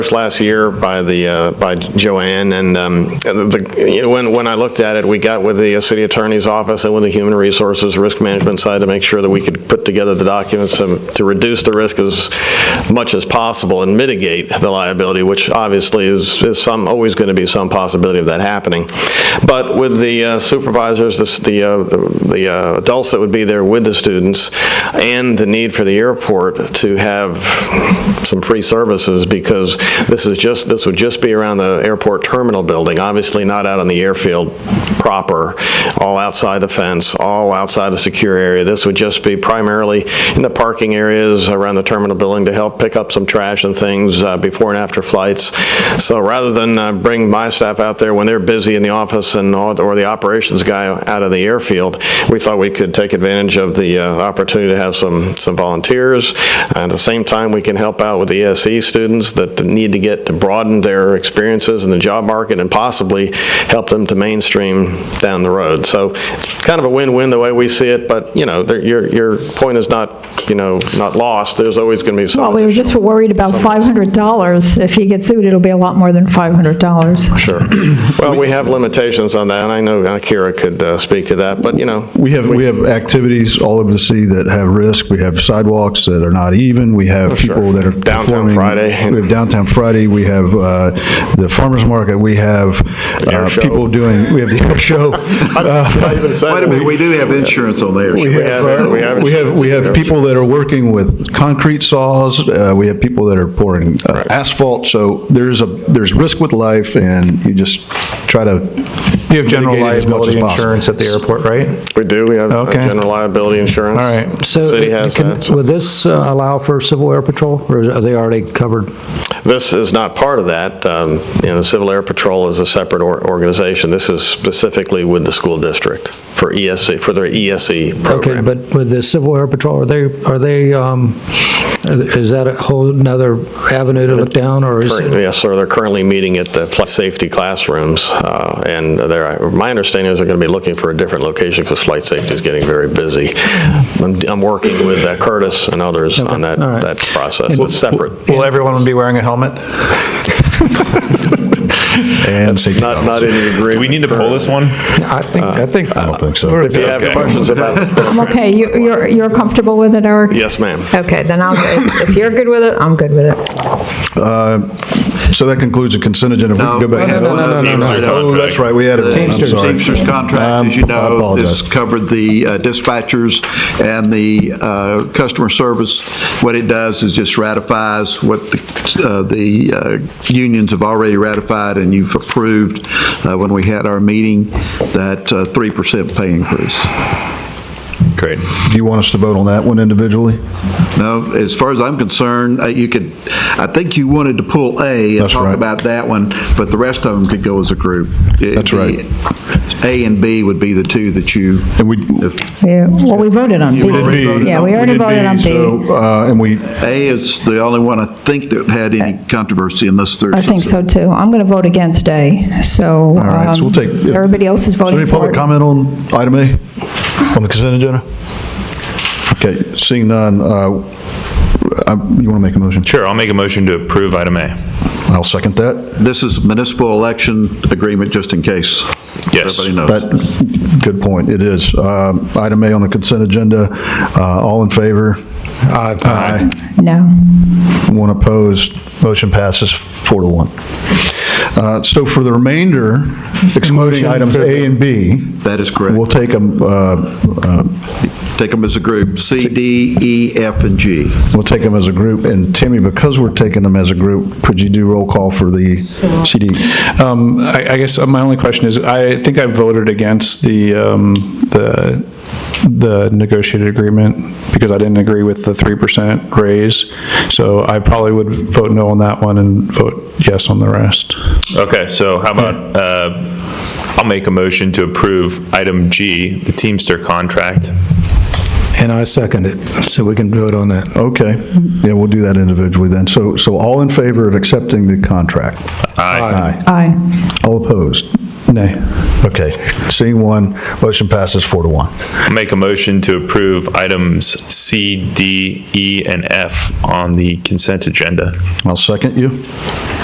last year by the, uh, by Joanne, and um, the- you know, when, when I looked at it, we got with the uh, city attorney's office and with the human resources, risk management side to make sure that we could put together the documents to to reduce the risk as much as possible and mitigate the liability, which obviously is, is some, always going to be some possibility of that happening. But with the uh, supervisors, the s- the, uh, the uh, adults that would be there with the students, and the need for the airport to have some free services, because this is just, this would just be around the airport terminal building, obviously not out on the airfield proper, all outside the fence, all outside the secure area. This would just be primarily in the parking areas around the terminal building to help pick up some trash and things uh, before and after flights. So rather than uh, bring my staff out there when they're busy in the office and, all- or the operations guy out of the airfield, we thought we could take advantage of the uh, opportunity to have some, some volunteers. At the same time, we can help out with the ESE students that need to get, to broaden their experiences in the job market and possibly help them to mainstream down the road. So it's kind of a win-win the way we see it, but, you know, there- your, your point is not, you know, not lost. There's always going to be some. Well, we were just worried about $500. If he gets sued, it'll be a lot more than $500. Sure. Well, we have limitations on that, and I know Akira could uh, speak to that, but, you know, We have, we have activities all over the city that have risk. We have sidewalks that are not even. We have Oh, sure. people that are Downtown performing- Friday. We have downtown Friday. We have uh, the farmer's market. We have uh, Air show. people doing, we have the air show. Uh, Wait a minute, we do have insurance on there. We have, have- uh, we have- we have, we have people that are working with concrete saws, uh, we have people that are pouring uh, asphalt, so there's a, there's risk with life, and you just try to. You have general mitigate it as much liability as possible. insurance at the airport, right? We do, we have uh, Okay. general liability insurance. All right. So, City has can- that. Will this uh, allow for Civil Air Patrol, or are they already covered? This is not part of that. Um, You know, the Civil Air Patrol is a separate or- organization. This is specifically with the school district for ESC, for their ESE Okay, program. but with the Civil Air Patrol, are they, are they, um, is that a whole nother avenue to look down, or is Current- it? Yes, sir, they're currently meeting at the flight safety classrooms, uh, and they're, my understanding is they're going to be looking for a different location because flight safety is getting very busy. I'm I'm working with uh, Curtis and others on that all right. that process. It's separate. Will everyone be wearing a helmet? And safety Not not policy. in the agreement. Do we need to pull this one? I think, I think. Uh, I don't think so. If you have questions about the program. Okay, you- you're you're comfortable with it, Eric? Yes, ma'am. Okay, then I'll, if if you're good with it, I'm good with it. Uh, So that concludes the consent agenda. If we No, can go back- no, no, no, no, no, no. Oh, that's right, we had a. Um, The Teamsters contract, as you know, this covered the uh, dispatchers and the uh, customer service. What it does is just ratifies what the uh, the uh, unions have already ratified and you've approved uh, when we had our meeting, that uh, 3% pay increase. Great. Do you want us to vote on that one individually? No, as far as I'm concerned, uh, you could, I think you wanted to pull A and That's talk right. about that one, but the rest of them could go as a group. It'd That's right. be- A and B would be the two that you, And we. Yeah, Well, we voted on B. did B. Yeah, we already did voted on B. so, uh, And we, A is the only one I think that had any controversy unless there's. I think so, too. I'm going to vote against A, so. All right, so um, we'll take. yeah. Everybody else is voting Is for there any public it. comment on item A, on the consent agenda? Okay, seeing none, uh, I- you want to make a motion? Sure, I'll make a motion to approve item A. I'll second that. This is municipal election agreement, just in case. Yes. Everybody knows. That, good point, it is. Um, Item A on the consent agenda, uh, all in favor? Aye. No. One opposed, motion passes four to one. Uh, So for the remainder, excluding items A and B, That is we'll correct. take uh, them, Take them as a group, C, D, E, F, and G. We'll take them as a group, and Timmy, because we're taking them as a group, could you do roll call for the CD? Um, I I guess my only question is, I think I voted against the, um, the the negotiated agreement because I didn't agree with the 3% raise. So I probably would vote no on that one and vote yes on the rest. Okay, so how about, uh, I'll make a motion to approve item G, the Teamster contract. And I second it, so we can vote on that. Okay, yeah, we'll do that individually then. So, so all in favor of accepting the contract? Aye. Aye. Aye. All opposed? Nay. Okay. Seeing one, motion passes four to one. I'll Make a motion to approve items C, D, E, and F on the consent agenda. I'll second you.